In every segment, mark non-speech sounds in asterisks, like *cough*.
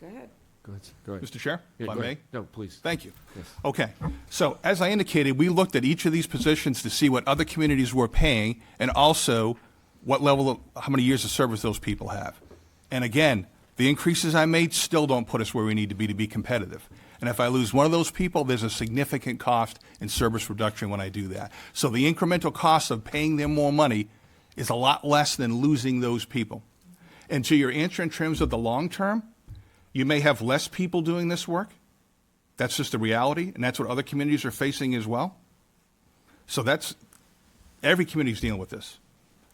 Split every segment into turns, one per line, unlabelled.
Go ahead.
Go ahead, go ahead.
Mr. Chair,
Yeah,
if I
go ahead.
may?
No, please.
Thank you.
Yes.
Okay, so as I indicated, we looked at each of these positions to see what other communities were paying and also what level of, how many years of service those people have. And again, the increases I made still don't put us where we need to be to be competitive. And if I lose one of those people, there's a significant cost in service reduction when I do that. So the incremental cost of paying them more money is a lot less than losing those people. And to your answer in terms of the long term, you may have less people doing this work. That's just the reality, and that's what other communities are facing as well. So that's every community's dealing with this.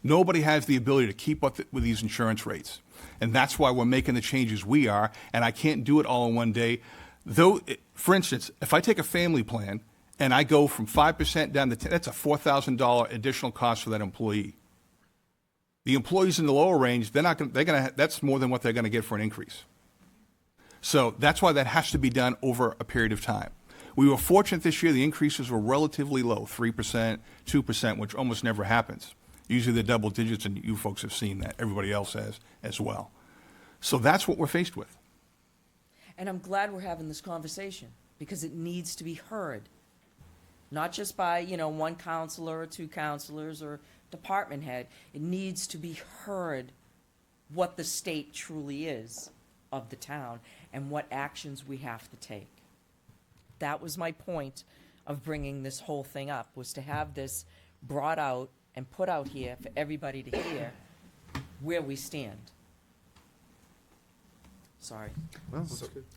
Nobody has the ability to keep up with these insurance rates, and that's why we're making the changes we are. And I can't do it all in one day. Though, eh, for instance, if I take a family plan and I go from five percent down to 10, that's a four thousand dollar additional cost for that employee. The employees in the lower range, they're not going. They're going to. That's more than what they're going to get for an increase. So that's why that has to be done over a period of time. We were fortunate this year, the increases were relatively low 3%, 2%, which almost never happens. Usually they're double digits, and you folks have seen that. Everybody else has as well. So that's what we're faced with.
And I'm glad we're having this conversation because it needs to be heard. Not just by, you know, one counselor or two counselors or department head. It needs to be heard what the state truly is of the town and what actions we have to take. That was my point of bringing this whole thing up, was to have this brought out and put out here for everybody to hear where we stand. Sorry.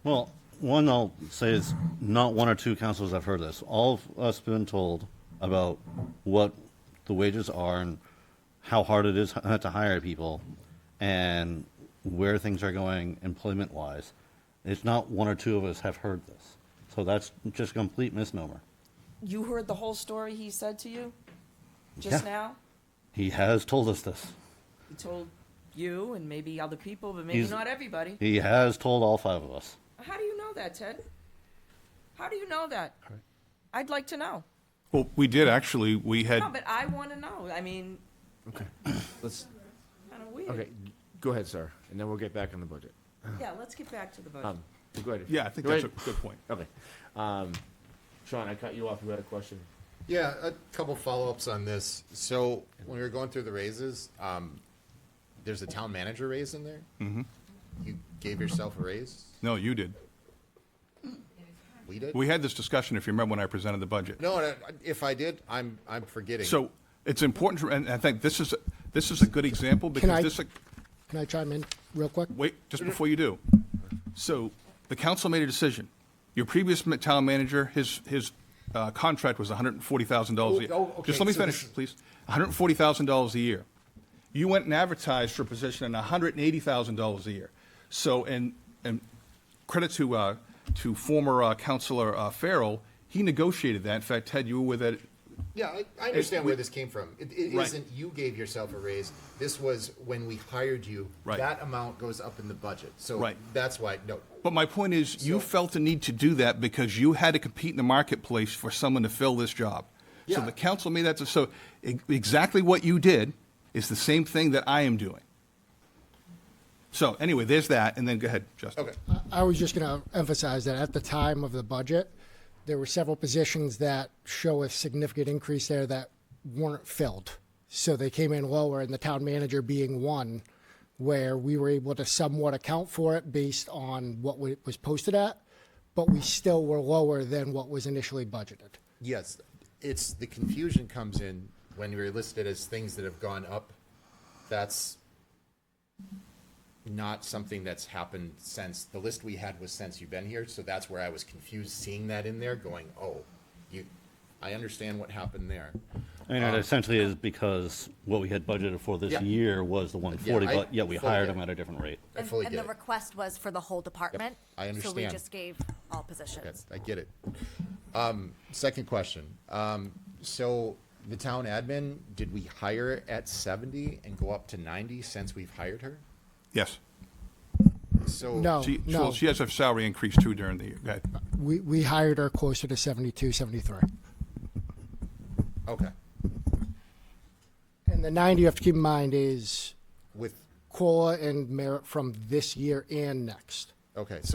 Well, one I'll say is not one or two councils have heard this. All of us been told about what the wages are and how hard it is *laughs* h- to hire people and where things are going employment wise. It's not one or two of us have heard this. So that's just a complete misnomer.
You heard the whole story he said to you just
Yeah.
now?
He has told us this.
He told you and maybe other people, but maybe
He's-
not everybody.
He has told all five of us.
How do you know that, Ted? How do you know that? I'd like to know.
Well, we did actually, we had,
No, but I want to know. I mean,
*clears throat*
Okay, let's,
kind of weird.
okay, go ahead, sir, and then we'll get back on the budget.
Yeah, let's get back to the budget.
Um, Go ahead.
yeah, I think
Go
that's a
ahead.
good point.
Okay. Um, Sean, I cut you off, you had a question?
Yeah, a couple follow-ups on this. So when we were going through the raises, um, there's a town manager raise in there? Mm-hmm. You gave yourself a raise?
No, you did.
We did?
We had this discussion, if you remember, when I presented the budget.
No, and I- if I did, I'm, I'm forgetting.
So it's important, to- and I think this is, this is a good example
I-
because this,
Can I chime in real quick?
wait, just before you do. So the council made a decision. Your previous ma- town manager, his, his uh, contract was $140,000 a year.
Oh, oh, okay,
Just let me
so this
finish,
is-
please. $140,000 a year. You went and advertised for a position at $180,000 a year. So, and, and credit to, uh, to former uh, Counselor uh, Farrell, he negotiated that. In fact, Ted, you were with it.
Yeah, I, I understand
we-
where this came from. It, it
Right.
not you gave yourself a raise. This was when we hired you.
Right.
That amount goes up in the budget. So
Right.
that's why, no,
But my point is, you
So-
felt the need to do that because you had to compete in the marketplace for someone to fill this job. So
Yeah.
the council made that, so e- exactly what you did is the same thing that I am doing. So anyway, there's that, and then go ahead, Justin.
okay.
I was just going to emphasize that at the time of the budget, there were several positions that show a significant increase there that weren't filled. So they came in lower, and the town manager being one, where we were able to somewhat account for it based on what wa- was posted at, but we still were lower than what was initially budgeted.
Yes, it's, the confusion comes in when you're listed as things that have gone up. That's not something that's happened since, the list we had was since you've been here, so that's where I was confused seeing that in there, going, oh, you, I understand what happened there.
I mean, it essentially is because what we had budgeted for this
Um, Yeah.
year was the 140,
I
but yet we
fully
hired
get
him
it.
at a different rate.
I
And-
fully get
And
it.
the request was for the whole department?
I
So we
understand.
just gave all positions.
That's- I get it. Um, second question. Um, so the town admin, did we hire at seventy and go up to ninety since we've hired her?
Yes.
So.
No,
She, she- well,
Oh, no,
she has her salary increase too during the year. Go ahead.
we, we hired her closer to 72, 73.
Okay,
And the 90 you have to keep in mind is
with
COLA and merit from this year and next.
Okay, so